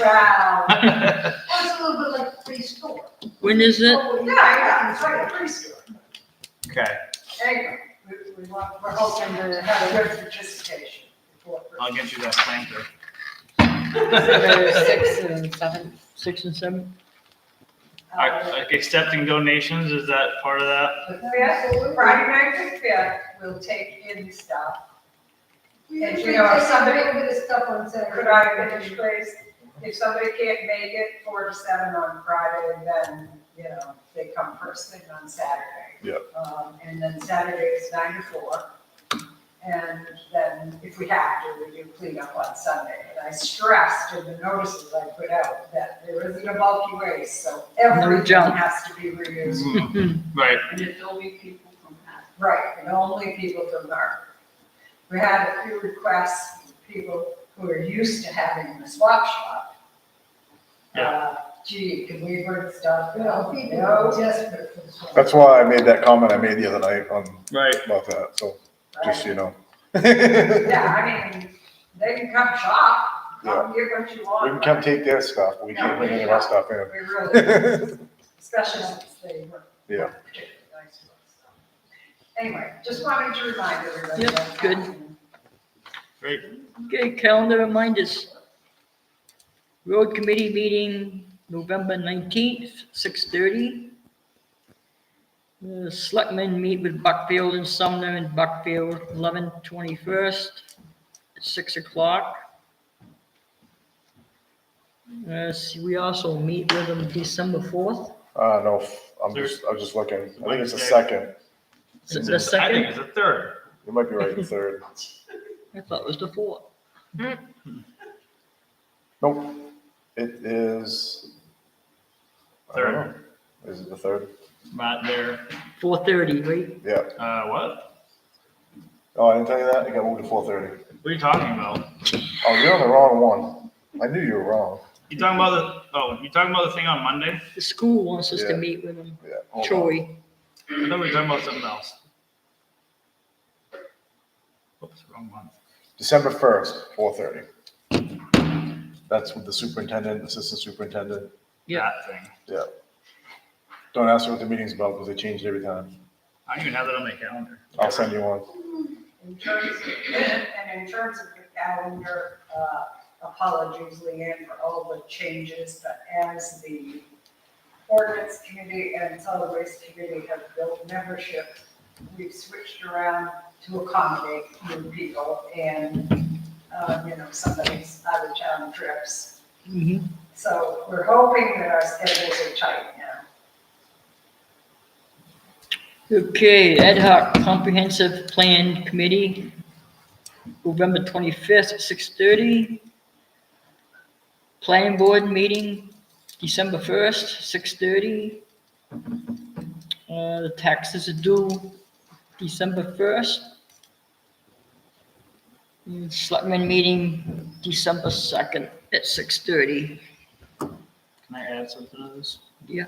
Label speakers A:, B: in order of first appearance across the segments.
A: Wow.
B: When
A: Well, it's a little bit like preschool.
C: When is it?
A: Yeah, yeah, it's like preschool.
B: Okay,
A: Anyway, we, we want, we're hoping to have a good participation. before
B: I'll
A: Christmas.
B: get you that planter.
C: Six and seven. Six and seven?
B: Are- Like Uh, accepting donations, is that part of that?
A: Uh, The fifth, Friday night the fifth, we'll take in stuff.
D: And
A: And
D: you
A: we are
D: know, somebody
A: somebody-
D: over this stuff on Saturday.
A: Could I finish, please? If somebody can't make it four to seven on Friday, then, you know, they come first thing on Saturday.
E: Yeah.
A: Um, and then Saturday is nine to four. And then if we have to, we do clean up on Sunday. And I stressed in the notices I put out that there isn't a bulky waste, so everything
C: junk.
A: has to be reused.
B: Right,
F: And it's only people from that.
A: Right, and only people from Harvard. We had a few requests, from people who are used to having the swap shop.
B: Yeah.
A: Uh, Gee, can we bring stuff?
D: Well,
A: No,
D: people
A: no,
D: are desperate for this one.
E: That's why I made that comment I made the other night on,
B: right.
E: about that, so, just
A: right.
E: so you know.
A: Yeah, I mean, they can come shop, come get what you
E: We
A: want.
E: can come take their stuff, we can't bring any of our stuff
A: We
E: in.
A: really, especially since they were.
E: Yeah.
A: weren't particularly nice to us, so. Anyway, just wanted to remind everybody.
C: Yep,
A: that.
C: good.
B: Great.
C: Okay, calendar reminders. Road committee meeting November nineteenth, six thirty. The selectmen meet with Buckfield and Sumner in Buckfield, eleven twenty-first, six o'clock. Uh, see, we also meet with them December fourth,
E: Uh, no, f- I'm just, I'm just looking, I think it's the second,
B: It's
C: the
B: a- I think
C: second,
B: it's a third.
E: you might be right, the third,
C: I thought it was the fourth.
E: nope, it is. I don't know. Is it the third?
B: Not there.
C: Four thirty, right?
E: Yeah,
B: Uh, what?
E: oh, I didn't tell you that, it got moved to four thirty.
B: What are you talking about?
E: Oh, you're on the wrong one, I knew you were wrong,
B: You talking about the, oh, you talking about the thing on Monday?
C: The school wants us to
E: Yeah.
C: meet with them,
E: yeah. hold on.
C: Troy.
B: I thought we were talking about something else. Oops, wrong month.
E: December first, four thirty. That's with the superintendent, assistant superintendent.
C: Yeah.
B: That thing.
E: Don't ask me what the meeting's about because they change it every time.
B: I don't even have that on my calendar.
E: I'll send you one.
A: In terms of, and in terms of the calendar, uh, apologies, Leanne, for all the changes, but as the ordinance committee and solid waste committee have built membership, we've switched around to accommodate new people and, uh, you know, somebody's out of town trips.
C: Mhm.
A: So we're hoping that our schedules are tight now.
C: Okay, ad hoc comprehensive plan committee, November twenty-fifth, six thirty. Planning board meeting, December first, six thirty. Uh, the taxes are due December first. Selectmen meeting, December second at six thirty.
B: Can I add something to this?
C: Yeah.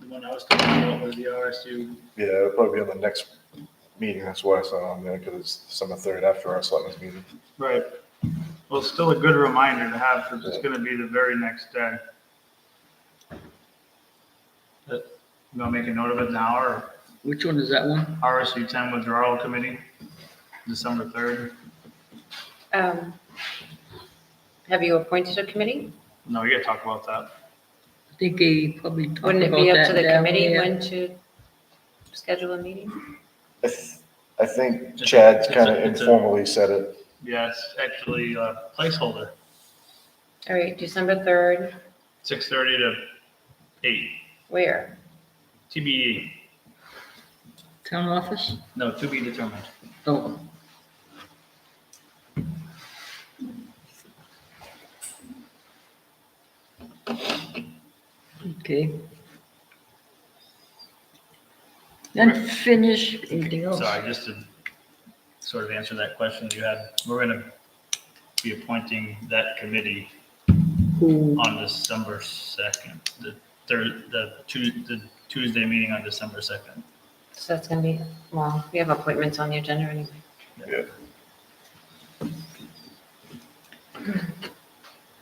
B: The one I was talking about was the RSU.
E: Yeah, it'll probably be on the next meeting. That's why I said on there because it's December third after our selectmen's meeting.
B: Right. Well, it's still a good reminder to have because it's going to be the very next day. But You want to make a note of it now or
C: Which one is that one?
B: RSU 10 withdrawal committee, December 3rd?
G: Um, Have you appointed a committee?
B: No, you got to talk about that.
C: I think they probably talked about
G: Wouldn't it
C: that.
G: be up to the
C: down
G: committee
C: there.
G: when to schedule a meeting?
E: I th- I think Chad's kind of informally said it.
B: Yeah, it's actually a placeholder,
G: All right, December 3rd,
B: 6:30 to 8,
G: where?
B: TBE,
C: Town office?
B: E. no, to be determined.
C: Oh. Okay. Then finish, anything else?
B: Sorry, just to sort of answer that question that you had, we're going to be appointing that committee
C: Who,
B: on December second, the third, the Tues, the Tuesday meeting on December second.
G: So that's going to be, well, we have appointments on the agenda anyway.